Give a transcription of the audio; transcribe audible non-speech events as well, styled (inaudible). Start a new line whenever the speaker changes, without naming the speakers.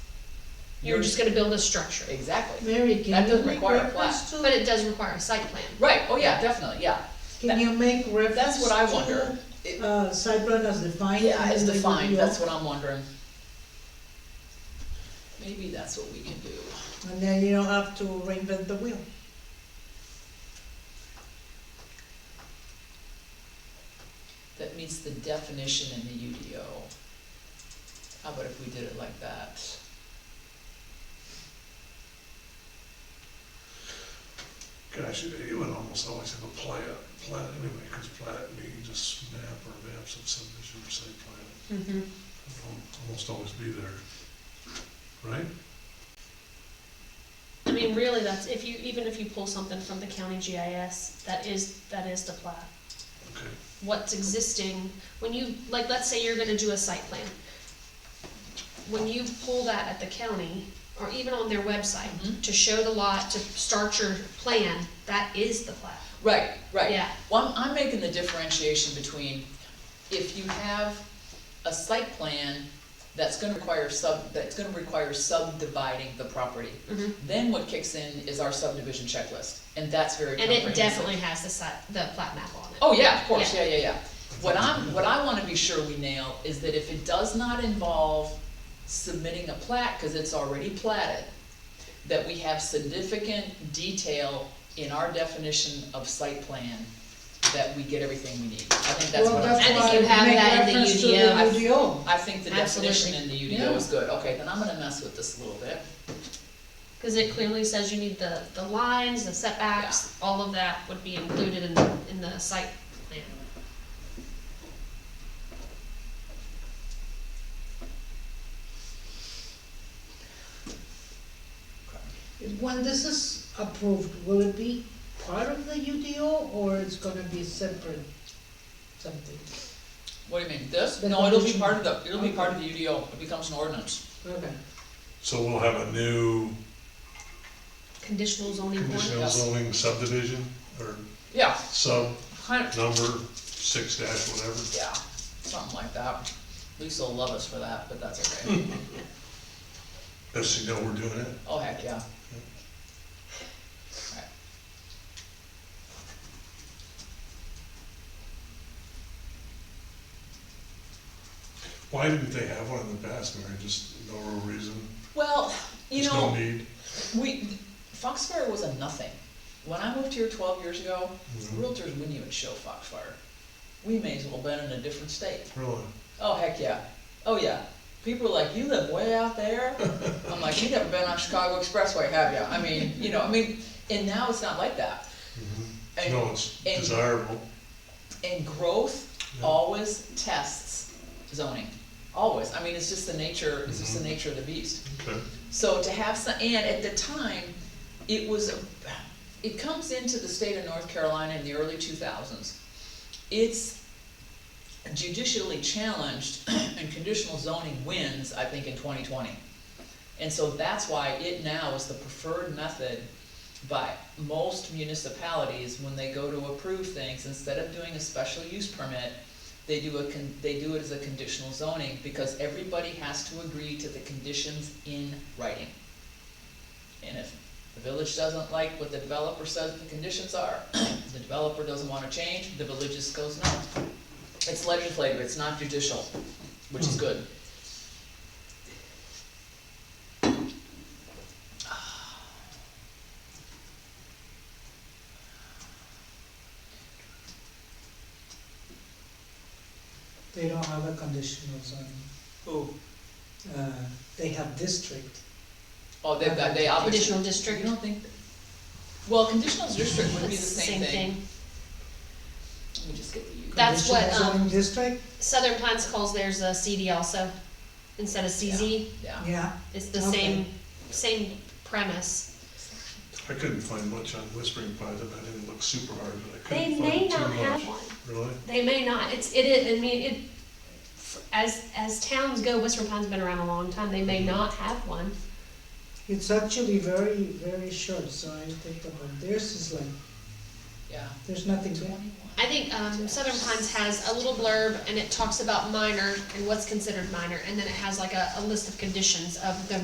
You're
You're-
just gonna build a structure,
Exactly.
Mary, can
That
you
doesn't
make
require a flat.
reference to?
but it does require a site plan.
Right, oh yeah, definitely, yeah.
Can you make reference?
That's what I wonder.
to, Uh, site plan as defined?
Yeah, it's
and then the
defined,
UDO,
that's what I'm wondering. Maybe that's what we can do.
And then you don't have to reinvent the wheel.
That meets the definition in the UDO. How about if we did it like that?
Gosh, you you would almost always have a plat, plat anyway, because plat means a s- map or maps of subdivision or site plan.
Mm-hmm.
It'll al- Almost always be there, right?
I mean, really, that's, if you, even if you pull something from the county GIS, that is, that is the plat.
Okay,
What's existing, when you, like, let's say you're gonna do a site plan. When you pull that at the county, or even on their website,
Mhm.
to show the lot, to start your plan, that is the plat.
Right, right.
Yeah.
Well, I'm, I'm making the differentiation between if you have a site plan that's gonna require sub, that's gonna require subdividing the property,
Mhm.
then what kicks in is our subdivision checklist, and that's very
And
comprehensive.
it definitely has the site, the plat map on it.
Oh, yeah, of course,
Yeah.
yeah, yeah, yeah. What I'm, what I wanna be sure we nail is that if it does not involve submitting a plat, cause it's already platted, that we have significant detail in our definition of site plan, that we get everything we need. I think that's what
Well,
I'm.
that's
I think
why
you have
make
that in the
reference to
UDO.
the UDO.
I think the definition in the
Absolutely.
UDO is good, okay, then I'm gonna mess with this a little bit.
Cause it clearly says you need the, the lines, the setbacks, all of that would be included in, the in the site plan.
When this is approved, will it be part of the UDO or it's gonna be separate something?
What do you mean, this?
The
No, it'll be
definition.
part of the, it'll be part of the UDO, it becomes an ordinance.
Okay.
so we'll have a new
Conditional zoning board,
conditional
yes.
zoning subdivision, or
Yeah,
sub
kind of,
number six dash whatever.
yeah, something like that. Lisa will love us for that, but that's
Hmm.
okay.
As you know, we're doing it.
Oh, heck, yeah. Alright.
Why didn't they have one in the past, Mary? Just no real reason,
Well, you
just no
know,
need.
we, Foxfire was a nothing. When I moved here twelve years ago,
Mm-hmm.
realtors wouldn't even show Foxfire. We may as well been in a different state.
Really?
Oh, heck yeah. Oh, yeah. People are like, you live way out
(laughs)
there? I'm like, you never been on Chicago Expressway, have you? I mean, you know, I mean, and now it's not like that. And-
Mm-hmm. No, it's
and-
desirable.
And growth
Yeah.
always tests zoning, always. I mean, it's just the nature, it's just the nature of the beast.
Okay.
So to have some, and at the time, it was, a- it comes into the state of North Carolina in the early two thousands. It's judicially challenged (clears throat) and conditional zoning wins, I think, in twenty twenty. And so that's why it now is the preferred method by most municipalities when they go to approve things, instead of doing a special use permit, they do a con, they do it as a conditional zoning, because everybody has to agree to the conditions in writing. And if the village doesn't like what the developer says the conditions are, the developer doesn't wanna change, the village just goes no. It's legislative, it's not judicial, which is good.
They don't have a conditional zone,
Who?
uh, they have district.
Oh, they've got, they obviously.
conditional
You
district,
don't think, well, conditional district would be the
it's the
same
same
thing.
thing.
Let me just get the U.
That's what,
Conditional
um,
zoning district,
Southern Pines calls theirs a CD also, instead of CZ,
Yeah,
yeah.
it's the
Okay.
same, same premise.
I couldn't find much on Whispering Pie that I didn't look super hard, but I
They
couldn't
may
find too much.
not have one,
Really?
they may not, it's, it is, I mean, it, as, as towns go, Whistler Pine's been around a long time, they may
Mm-hmm.
not have one.
It's actually very, very short, so I think about theirs is like,
yeah.
there's nothing there.
I think um, Southern Pines has a little blurb and it talks about minor and what's considered minor, and then it has like a, a list of conditions of the